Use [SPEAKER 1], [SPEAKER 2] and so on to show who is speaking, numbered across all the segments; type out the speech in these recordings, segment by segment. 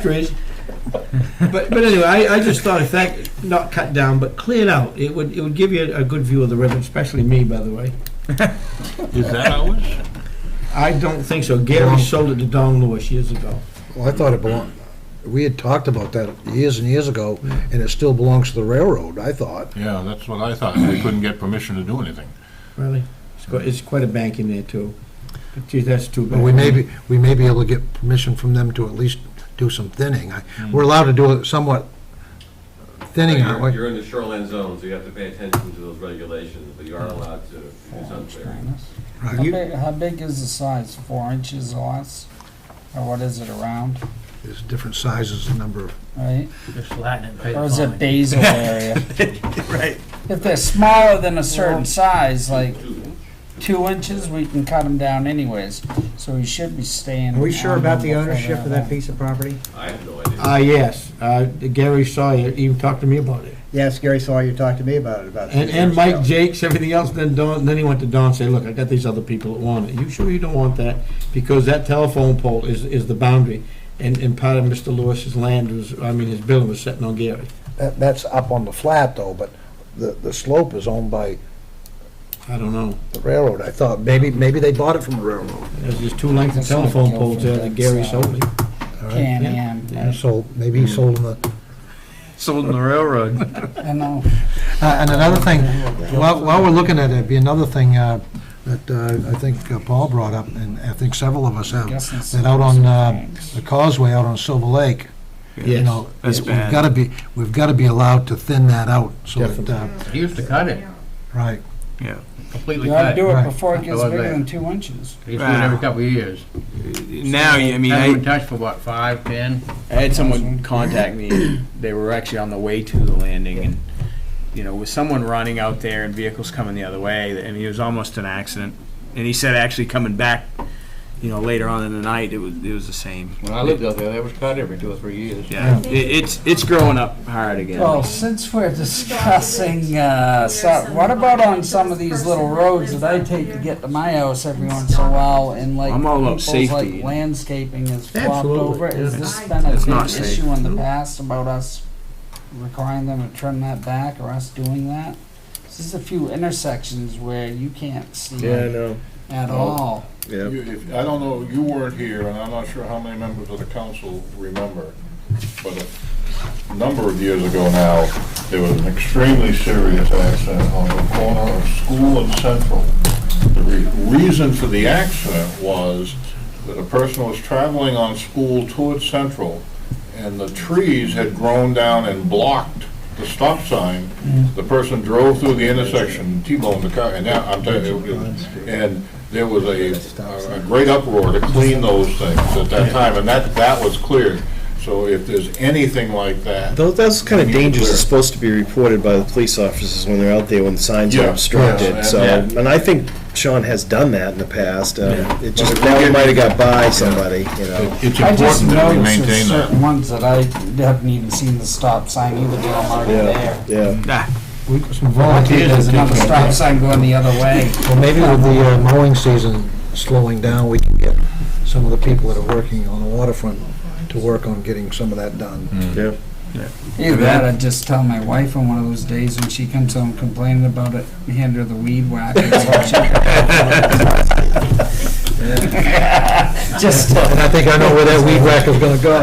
[SPEAKER 1] factories. but but anyway, I, I just thought if that not cut down but cleared out, it would it would give you a, a good view of the river, especially me, by the way.
[SPEAKER 2] Is that ours?
[SPEAKER 1] I don't think so. Gary sold it to Don Lewis years ago.
[SPEAKER 3] Well, I thought it belonged, we had talked about that years and years ago, and it still belongs to the railroad, I thought.
[SPEAKER 2] Yeah, that's what I thought. We couldn't get permission to do anything.
[SPEAKER 1] Really, it's quite, it's quite a bank in there too. But geez, that's too bad.
[SPEAKER 3] But we may be, we may be able to get permission from them to at least do some thinning. I- We're allowed to do it somewhat thinning, aren't
[SPEAKER 4] You're-
[SPEAKER 3] we?
[SPEAKER 4] You're in the shoreline zone, so you have to pay attention to those regulations, but you are allowed to do some clearing.
[SPEAKER 5] How big, how big is the size? Four inches or less? Or what is it around,
[SPEAKER 3] There's different sizes, a number of,
[SPEAKER 5] right?
[SPEAKER 6] Just Latin it.
[SPEAKER 5] Or is it basal area? Right. If they're smaller than a certain size, like two inches, we can cut them down anyways. So we should be staying.
[SPEAKER 7] Are we sure about the
[SPEAKER 5] on them
[SPEAKER 7] ownership of that
[SPEAKER 5] before
[SPEAKER 7] piece of property?
[SPEAKER 4] I have no idea.
[SPEAKER 1] Ah yes, uh, Gary saw you. Even talked to me about it,
[SPEAKER 7] Yes, Gary Sawyer you talked to me about it about.
[SPEAKER 1] and,
[SPEAKER 7] three
[SPEAKER 1] and
[SPEAKER 7] years
[SPEAKER 1] Mike
[SPEAKER 7] ago.
[SPEAKER 1] Jakes, everything else. Then Don, then he went to Don and said, "Look, I got these other people that want it. You sure you don't want that? Because that telephone pole is is the boundary, and and part of Mr. Lewis's land was, I mean, his building was sitting on Gary."
[SPEAKER 3] that, that's up on the flat though, but the, the slope is owned by
[SPEAKER 1] I don't know.
[SPEAKER 3] the railroad. I thought, maybe, maybe they bought it from the railroad.
[SPEAKER 1] There's just two lengths of telephone poles there that Gary sold me.
[SPEAKER 5] Can
[SPEAKER 1] Yeah.
[SPEAKER 5] am,
[SPEAKER 1] Yeah.
[SPEAKER 3] So maybe he sold them the.
[SPEAKER 6] Sold in the railroad.
[SPEAKER 5] I know.
[SPEAKER 3] Uh, And another thing, while, while we're looking at it, be another thing uh, that uh, I think uh, Paul brought up, and I think several of us have,
[SPEAKER 5] Guess it's-
[SPEAKER 3] that out on uh, the causeway out on Silver Lake, you
[SPEAKER 1] Yes.
[SPEAKER 3] know, we've got to be, we've got to be allowed to thin that out, so that, uh,
[SPEAKER 6] He used to cut it,
[SPEAKER 3] right.
[SPEAKER 6] completely
[SPEAKER 5] You ought to
[SPEAKER 6] cut.
[SPEAKER 5] do it
[SPEAKER 3] Right.
[SPEAKER 5] before it gets
[SPEAKER 6] Hello
[SPEAKER 5] bigger
[SPEAKER 6] there.
[SPEAKER 5] than two inches.
[SPEAKER 6] He used to do it every couple of years.
[SPEAKER 8] Now, I mean,
[SPEAKER 6] Hasn't been
[SPEAKER 8] I,
[SPEAKER 6] touched for what, five, ten?
[SPEAKER 8] I had someone contact me, and they were actually on the way to the landing, and, you know, with someone running out there and vehicles coming the other way, I mean, it was almost an accident. And he said actually coming back, you know, later on in the night, it was, it was the same.
[SPEAKER 2] When I lived out there, that was cut every two or three years.
[SPEAKER 8] Yeah, it, it's, it's growing up hard again.
[SPEAKER 5] Well, since we're discussing, uh, so, what about on some of these little roads that I take to get to my house every once in a while and like.
[SPEAKER 8] I'm all about
[SPEAKER 5] people's,
[SPEAKER 8] safety.
[SPEAKER 5] like, Landscaping is flopped
[SPEAKER 1] Absolutely,
[SPEAKER 5] over, has
[SPEAKER 1] yeah.
[SPEAKER 5] this been a
[SPEAKER 8] It's not
[SPEAKER 5] big
[SPEAKER 8] safe.
[SPEAKER 5] issue in the past about us requiring them to turn that back or us doing that? There's a few intersections where you can't see it
[SPEAKER 1] know.
[SPEAKER 5] at all.
[SPEAKER 2] You- if- I don't know, you weren't here, and I'm not sure how many members of the council remember, but a number of years ago now, there was an extremely serious accident on the corner of School and Central. The re- reason for the accident was that a person was traveling on School towards Central, and the trees had grown down and blocked the stop sign. The person drove through the intersection, T-boned the car, and now, I'm telling you, it was- and there was a, a great uproar to clean those things at that time, and that, that was cleared. So if there's anything like that.
[SPEAKER 9] Though that's kind of
[SPEAKER 2] we need to
[SPEAKER 9] dangerous,
[SPEAKER 2] clear.
[SPEAKER 9] it's supposed to be reported by the police officers when they're out there when signs
[SPEAKER 2] Yeah,
[SPEAKER 9] are
[SPEAKER 2] yeah,
[SPEAKER 9] obstructed,
[SPEAKER 2] and-
[SPEAKER 9] so,
[SPEAKER 2] Yeah.
[SPEAKER 9] and I think Sean has done that in the past, um, it just,
[SPEAKER 2] if we
[SPEAKER 9] now it
[SPEAKER 2] get-
[SPEAKER 9] might have got by somebody, you know.
[SPEAKER 2] It's
[SPEAKER 5] I just
[SPEAKER 2] important that we
[SPEAKER 5] noticed uh, there's
[SPEAKER 2] maintain that.
[SPEAKER 5] certain ones that I haven't even seen the stop sign either, They're already there.
[SPEAKER 9] Yeah, yeah,
[SPEAKER 3] We've got some
[SPEAKER 5] There's
[SPEAKER 3] volunteers.
[SPEAKER 5] another stop sign going the other way.
[SPEAKER 3] Well, maybe with the uh, mowing season slowing down, we can get some of the people that are working on the waterfront to work on getting some of that done.
[SPEAKER 9] yeah.
[SPEAKER 5] Either that, or just tell my wife on one of those days when she comes home complaining about it, hand her the weed whacker. Just,
[SPEAKER 3] And I think I know where that weed whacker's going to go.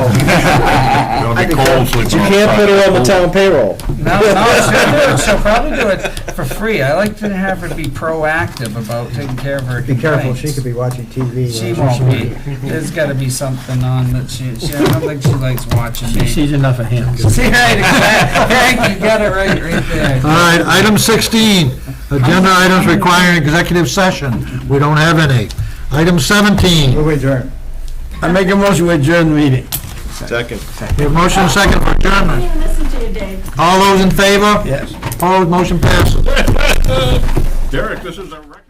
[SPEAKER 2] It'll be cold
[SPEAKER 9] But
[SPEAKER 2] sleeping
[SPEAKER 9] you
[SPEAKER 2] on
[SPEAKER 9] can't put
[SPEAKER 2] sidewalk.
[SPEAKER 9] her on the town payroll.
[SPEAKER 5] no, no, she'll do it, she'll probably do it for free. I like to have her be proactive about taking care of her
[SPEAKER 7] Be careful, she could
[SPEAKER 5] complaints.
[SPEAKER 7] be watching TV.
[SPEAKER 5] She
[SPEAKER 7] uh,
[SPEAKER 5] won't be. There's gotta be something on that she, she, I don't think she likes watching me. See,
[SPEAKER 1] She's enough of him.
[SPEAKER 5] right, exactly. Hank, you got it right, right there.
[SPEAKER 3] All right, item 16, agenda items requiring executive session. We don't have any. Item 17,
[SPEAKER 7] Move adjourned.
[SPEAKER 1] I make a motion to adjourn the meeting.
[SPEAKER 9] Second.
[SPEAKER 3] we have motion and second for
[SPEAKER 10] I
[SPEAKER 3] adjournment.
[SPEAKER 10] didn't even listen to you, Dave.
[SPEAKER 3] All those in favor?
[SPEAKER 1] Yes.
[SPEAKER 3] Opposed, motion passes.
[SPEAKER 2] Derek, this is a record.